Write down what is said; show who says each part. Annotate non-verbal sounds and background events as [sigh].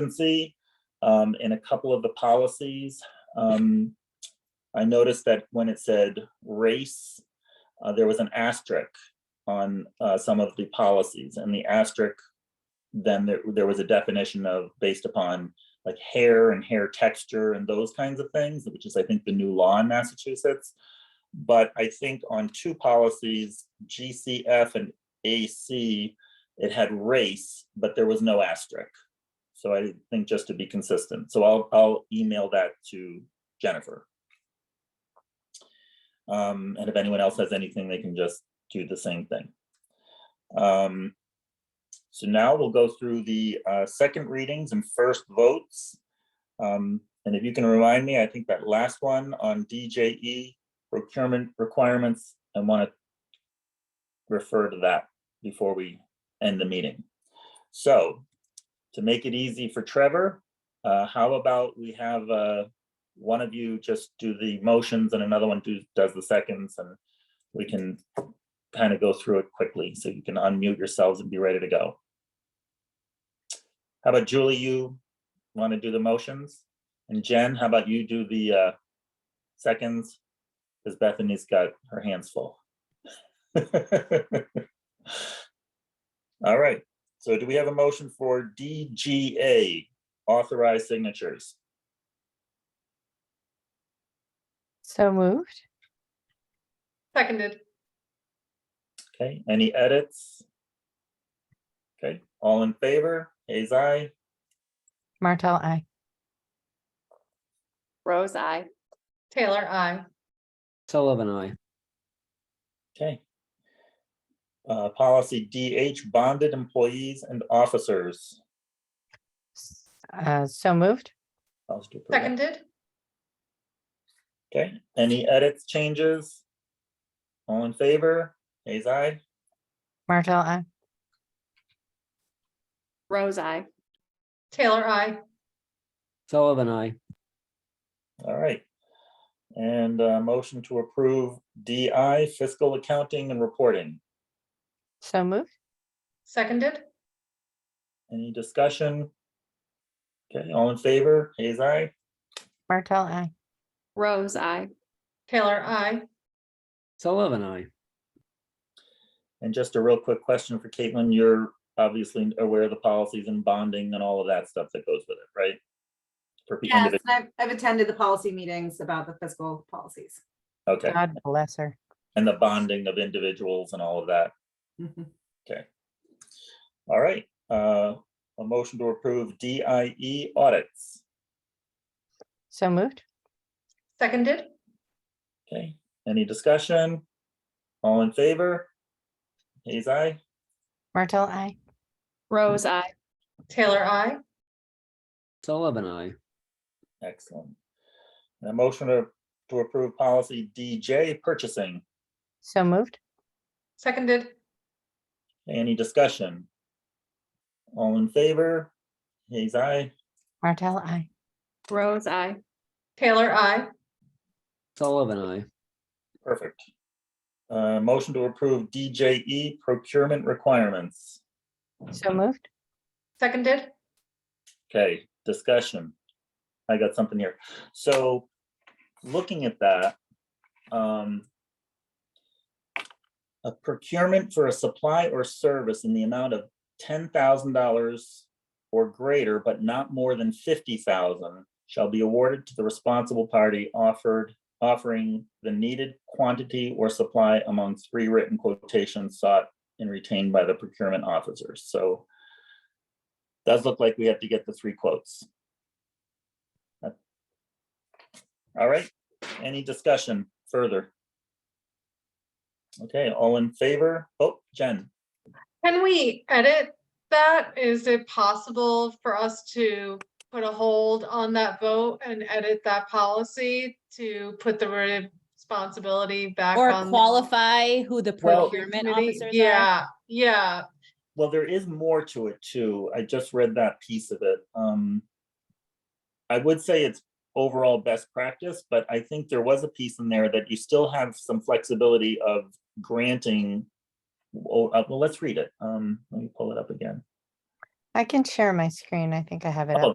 Speaker 1: consistency um, in a couple of the policies. Um, I noticed that when it said race, uh, there was an asterisk on uh, some of the policies and the asterisk, then there, there was a definition of based upon like hair and hair texture and those kinds of things, which is, I think, the new law in Massachusetts. But I think on two policies, GCF and AC, it had race, but there was no asterisk. So I think just to be consistent, so I'll, I'll email that to Jennifer. Um, and if anyone else has anything, they can just do the same thing. Um, so now we'll go through the, uh, second readings and first votes. Um, and if you can remind me, I think that last one on DJE procurement requirements, I want to refer to that before we end the meeting. So to make it easy for Trevor, uh, how about we have, uh, one of you just do the motions and another one do, does the seconds and we can kind of go through it quickly so you can unmute yourselves and be ready to go. How about Julie, you want to do the motions? And Jen, how about you do the, uh, seconds? Because Bethany's got her hands full. [laughs] All right, so do we have a motion for DGA, authorized signatures?
Speaker 2: So moved.
Speaker 3: Seconded.
Speaker 1: Okay, any edits? Okay, all in favor? Hayes, aye.
Speaker 2: Martel, I.
Speaker 4: Rose, I.
Speaker 3: Taylor, I.
Speaker 5: Sullivan, I.
Speaker 1: Okay. Uh, policy DH, bonded employees and officers.
Speaker 2: S- uh, So moved.
Speaker 1: I'll just do it for that.
Speaker 3: Seconded.
Speaker 1: Okay, any edits, changes? All in favor? Hayes, aye.
Speaker 2: Martel, I.
Speaker 4: Rose, I.
Speaker 3: Taylor, I.
Speaker 5: Sullivan, I.
Speaker 1: All right. And, uh, motion to approve DI, fiscal accounting and reporting.
Speaker 2: So moved.
Speaker 3: Seconded.
Speaker 1: Any discussion? Okay, all in favor? Hayes, aye.
Speaker 2: Martel, I.
Speaker 4: Rose, I.
Speaker 3: Taylor, I.
Speaker 5: Sullivan, I.
Speaker 1: And just a real quick question for Caitlin, you're obviously aware of the policies and bonding and all of that stuff that goes with it, right? For pe-
Speaker 6: Yes,
Speaker 1: individ-
Speaker 6: and I've, I've attended the policy meetings about the fiscal policies.
Speaker 1: Okay,
Speaker 2: God bless her.
Speaker 1: and the bonding of individuals and all of that. All right, uh, a motion to approve DIE audits.
Speaker 2: So moved.
Speaker 3: Seconded.
Speaker 1: Okay, any discussion? All in favor? Hayes, aye.
Speaker 2: Martel, I.
Speaker 4: Rose, I.
Speaker 3: Taylor, I.
Speaker 5: Sullivan, I.
Speaker 1: Excellent. And A motion to, to approve policy DJ purchasing.
Speaker 2: So moved.
Speaker 3: Seconded.
Speaker 1: Any discussion? All in favor? Hayes, aye.
Speaker 2: Martel, I.
Speaker 4: Rose, I.
Speaker 3: Taylor, I.
Speaker 5: Sullivan, I.
Speaker 1: Perfect. Uh, motion to approve DJE procurement requirements.
Speaker 2: So moved.
Speaker 3: Seconded.
Speaker 1: Okay, discussion. I got something here. So looking at that, um, a procurement for a supply or service in the amount of ten thousand dollars or greater, but not more than fifty thousand shall be awarded to the responsible party offered, offering the needed quantity or supply among three written quotations sought and retained by the procurement officers. So does look like we have to get the three quotes. Uh, All right, any discussion further? Okay, all in favor? Oh, Jen,
Speaker 3: Can we edit that? Is it possible for us to put a hold on that vote and edit that policy to put the word responsibility back
Speaker 7: Or
Speaker 3: on? the
Speaker 7: qualify who the
Speaker 1: Well-
Speaker 7: procurement
Speaker 3: committee?
Speaker 7: officers are?
Speaker 3: Yeah, yeah.
Speaker 1: well, there is more to it too. I just read that piece of it. Um, I would say it's overall best practice, but I think there was a piece in there that you still have some flexibility of granting. Oh, uh, well, let's read it. Um, let me pull it up again.
Speaker 2: I can share my screen. I think I have it
Speaker 1: Oh,
Speaker 2: up.